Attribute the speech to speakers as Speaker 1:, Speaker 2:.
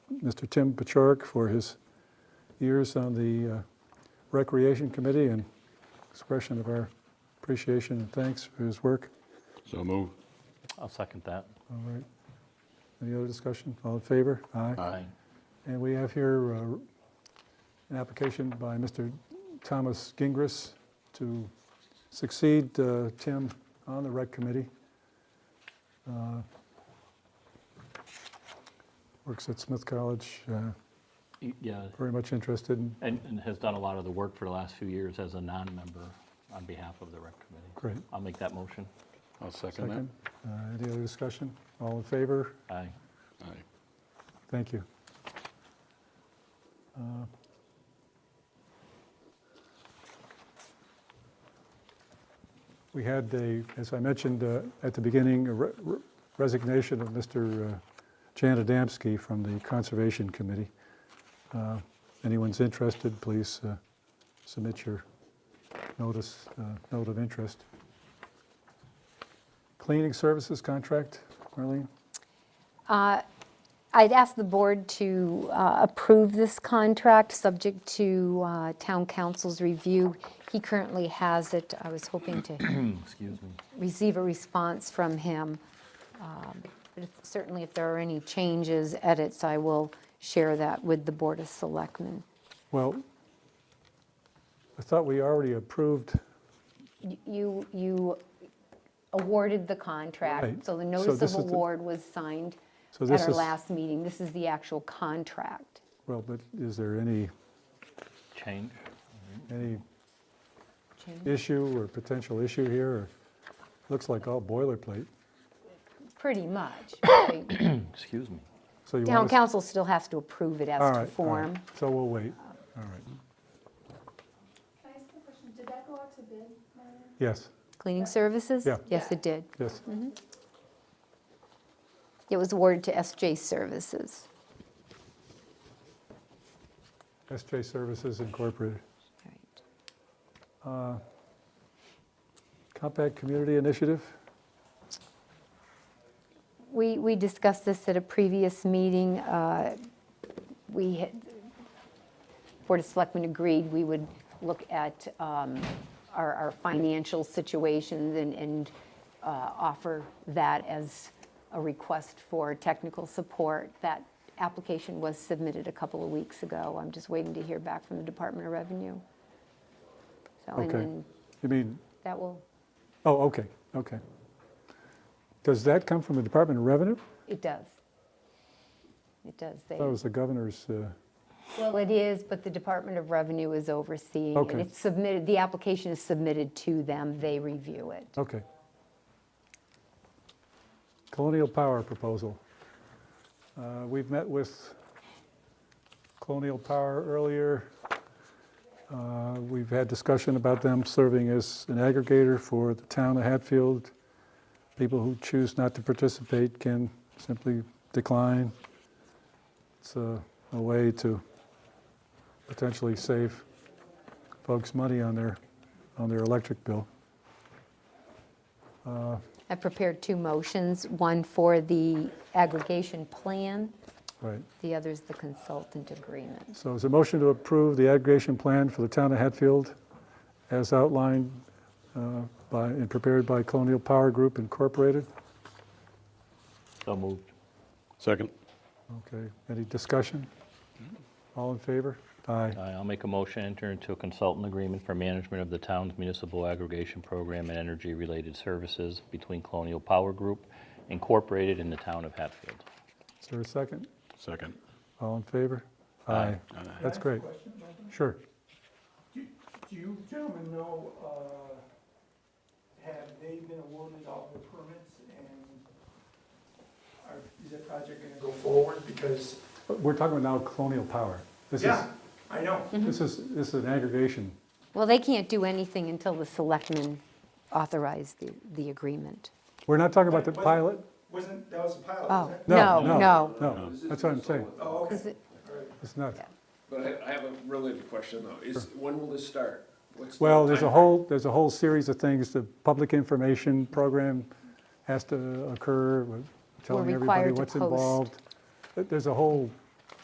Speaker 1: Mr. Tim Pachurk for his years on the uh, Recreation Committee and expression of our appreciation and thanks for his work.
Speaker 2: So move.
Speaker 3: I'll second that.
Speaker 1: All right. Any other discussion? All in favor? Aye. And we have here uh, an application by Mr. Thomas Gingras to succeed uh, Tim on the rec committee. Uh, Works at Smith College, uh,
Speaker 3: Y- Yeah,
Speaker 1: very much interested in,
Speaker 3: and, and has done a lot of the work for the last few years as a non-member on behalf of the rec committee.
Speaker 1: great.
Speaker 3: I'll make that motion.
Speaker 2: I'll second
Speaker 1: Second. Uh, Any other discussion? All in favor?
Speaker 3: Aye.
Speaker 2: that. Aye.
Speaker 1: Thank you. Uh, We had a, as I mentioned uh, at the beginning, a re- re- resignation of Mr. uh, Jan Adamski from the Conservation Committee. Uh, Anyone's interested, please uh, submit your notice, uh, note of interest. Cleaning services contract, Marlene?
Speaker 4: I'd ask the board to uh, approve this contract, subject to uh, town council's review. He currently has it. I was hoping to
Speaker 3: Excuse me.
Speaker 4: receive a response from him. Um, but if- Certainly, if there are any changes, edits, I will share that with the Board of Selectmen.
Speaker 1: Well, I thought we already approved.
Speaker 4: Y- You, you awarded the contract,
Speaker 1: Right.
Speaker 4: so the
Speaker 1: So
Speaker 4: notice
Speaker 1: this
Speaker 4: of
Speaker 1: is the-
Speaker 4: award was signed
Speaker 1: So
Speaker 4: at
Speaker 1: this
Speaker 4: our
Speaker 1: is-
Speaker 4: last meeting. This is the actual contract.
Speaker 1: Well, but is there any,
Speaker 3: Change?
Speaker 1: any
Speaker 4: Change?
Speaker 1: issue or potential issue here? or- Looks like all boilerplate.
Speaker 4: Pretty much, right?
Speaker 3: Excuse me.
Speaker 1: So you
Speaker 4: Town
Speaker 1: want us-
Speaker 4: council still has to approve it
Speaker 1: All
Speaker 4: as
Speaker 1: right, all
Speaker 4: to
Speaker 1: right.
Speaker 4: form.
Speaker 1: So we'll wait. All right.
Speaker 5: Can I ask a question? Did that go out to bid, Marlene?
Speaker 1: Yes,
Speaker 4: Cleaning services?
Speaker 1: Yeah.
Speaker 4: Yes, it did.
Speaker 1: yes.
Speaker 4: It was awarded to SJ Services.
Speaker 1: SJ Services Incorporated.
Speaker 4: Right.
Speaker 1: Compact Community Initiative?
Speaker 4: We, we discussed this at a previous meeting. uh, We, had- Board of Selectmen agreed we would look at um, our, our financial situations and, and uh, offer that as a request for technical support. That application was submitted a couple of weeks ago. I'm just waiting to hear back from the Department of Revenue. So, and
Speaker 1: Okay.
Speaker 4: then
Speaker 1: You mean,
Speaker 4: that will,
Speaker 1: oh, okay, okay. Does that come from the Department of Revenue?
Speaker 4: it does. It does. They-
Speaker 1: That was the governor's, uh,
Speaker 4: Well, it is, but the Department of Revenue is overseeing.
Speaker 1: Okay.
Speaker 4: And it's submitted, the application is submitted to them, they review it.
Speaker 1: okay. Colonial Power proposal. Uh, We've met with Colonial Power earlier. Uh, We've had discussion about them serving as an aggregator for the town of Hatfield. People who choose not to participate can simply decline. It's a a way to potentially save folks money on their, on their electric bill.
Speaker 4: I prepared two motions, one for the aggregation plan,
Speaker 1: Right.
Speaker 4: the other is the consultant agreement.
Speaker 1: So is a motion to approve the aggregation plan for the town of Hatfield as outlined uh, by, and prepared by Colonial Power Group Incorporated?
Speaker 3: So moved.
Speaker 2: Second.
Speaker 1: Okay, any discussion? All in favor? Aye.
Speaker 3: Aye, I'll make a motion, enter into a consultant agreement for management of the town's municipal aggregation program and energy-related services between Colonial Power Group Incorporated in the town of Hatfield.
Speaker 1: Is there a second?
Speaker 2: Second.
Speaker 1: All in favor? Aye. That's great. Sure.
Speaker 6: Do do you gentlemen know, uh, have they been awarded all the permits and are, is that project gonna go forward? Because,
Speaker 1: We're talking about now Colonial Power. This is,
Speaker 6: yeah, I know.
Speaker 4: Mm-hmm.
Speaker 1: this is, this is an aggregation.
Speaker 4: Well, they can't do anything until the selectmen authorize the, the agreement.
Speaker 1: We're not talking about the
Speaker 6: Wasn't-
Speaker 1: pilot?
Speaker 6: Wasn't, that was a pilot,
Speaker 4: Oh,
Speaker 6: wasn't it?
Speaker 4: no,
Speaker 1: No,
Speaker 4: no.
Speaker 1: no, that's what I'm saying.
Speaker 6: Oh, okay.
Speaker 4: Is it-
Speaker 1: It's not.
Speaker 7: But I, I have a related question though, is, when will this start? What's the
Speaker 1: Well, there's a
Speaker 7: timeframe?
Speaker 1: whole, there's a whole series of things, the public information program has to occur, we're telling everybody
Speaker 4: required to
Speaker 1: what's
Speaker 4: post.
Speaker 1: involved. There- There's a whole